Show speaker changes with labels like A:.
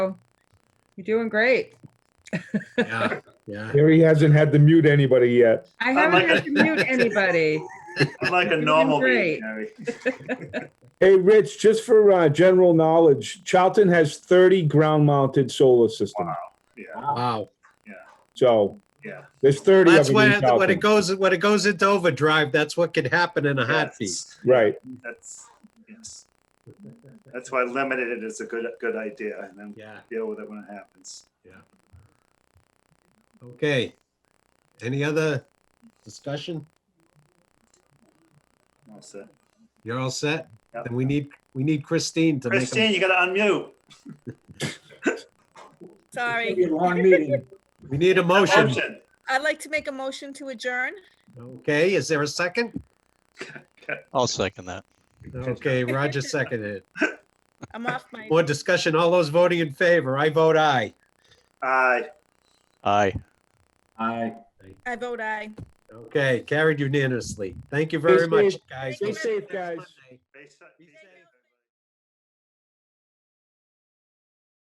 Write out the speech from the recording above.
A: You're doing great.
B: Yeah, yeah.
C: Here he hasn't had to mute anybody yet.
A: I
D: Oh
A: haven't
D: my
A: had to
D: God.
A: mute anybody.
D: I'm like a
A: Doing
D: normal
A: great.
D: meeting, Gary.
C: Hey, Rich, just for uh, general knowledge, Charlton has 30 ground-mounted solar systems.
D: Yeah,
B: Wow.
C: So
D: yeah.
C: there's 30 of
B: That's
C: them in
B: where, when it
C: Charlton.
B: goes, when it goes into overdrive, that's what could happen in a heartbeat.
D: Yes.
C: Right.
D: That's, yes. That's why limited it is a good, good idea and then
B: Yeah,
D: deal with it when it happens.
B: okay. Any other discussion?
D: All set.
B: You're all set?
D: Yep.
B: Then we need, we need Christine to make, a-
D: Christine, you gotta unmute.
E: Sorry,
B: we need a motion.
D: Motion.
E: I'd like to make a motion to adjourn.
B: Okay, is there a second?
F: I'll second that.
B: Okay, Roger seconded.
E: I'm off my,
B: More discussion, all those voting in favor, I vote aye.
D: Aye.
F: Aye.
D: Aye.
E: I vote aye.
B: Okay, carried unanimously. Thank you very much,
C: safe.
B: guys.
E: Stay
B: We'll see you
C: safe,
B: next
C: guys.
B: Monday. Be safe.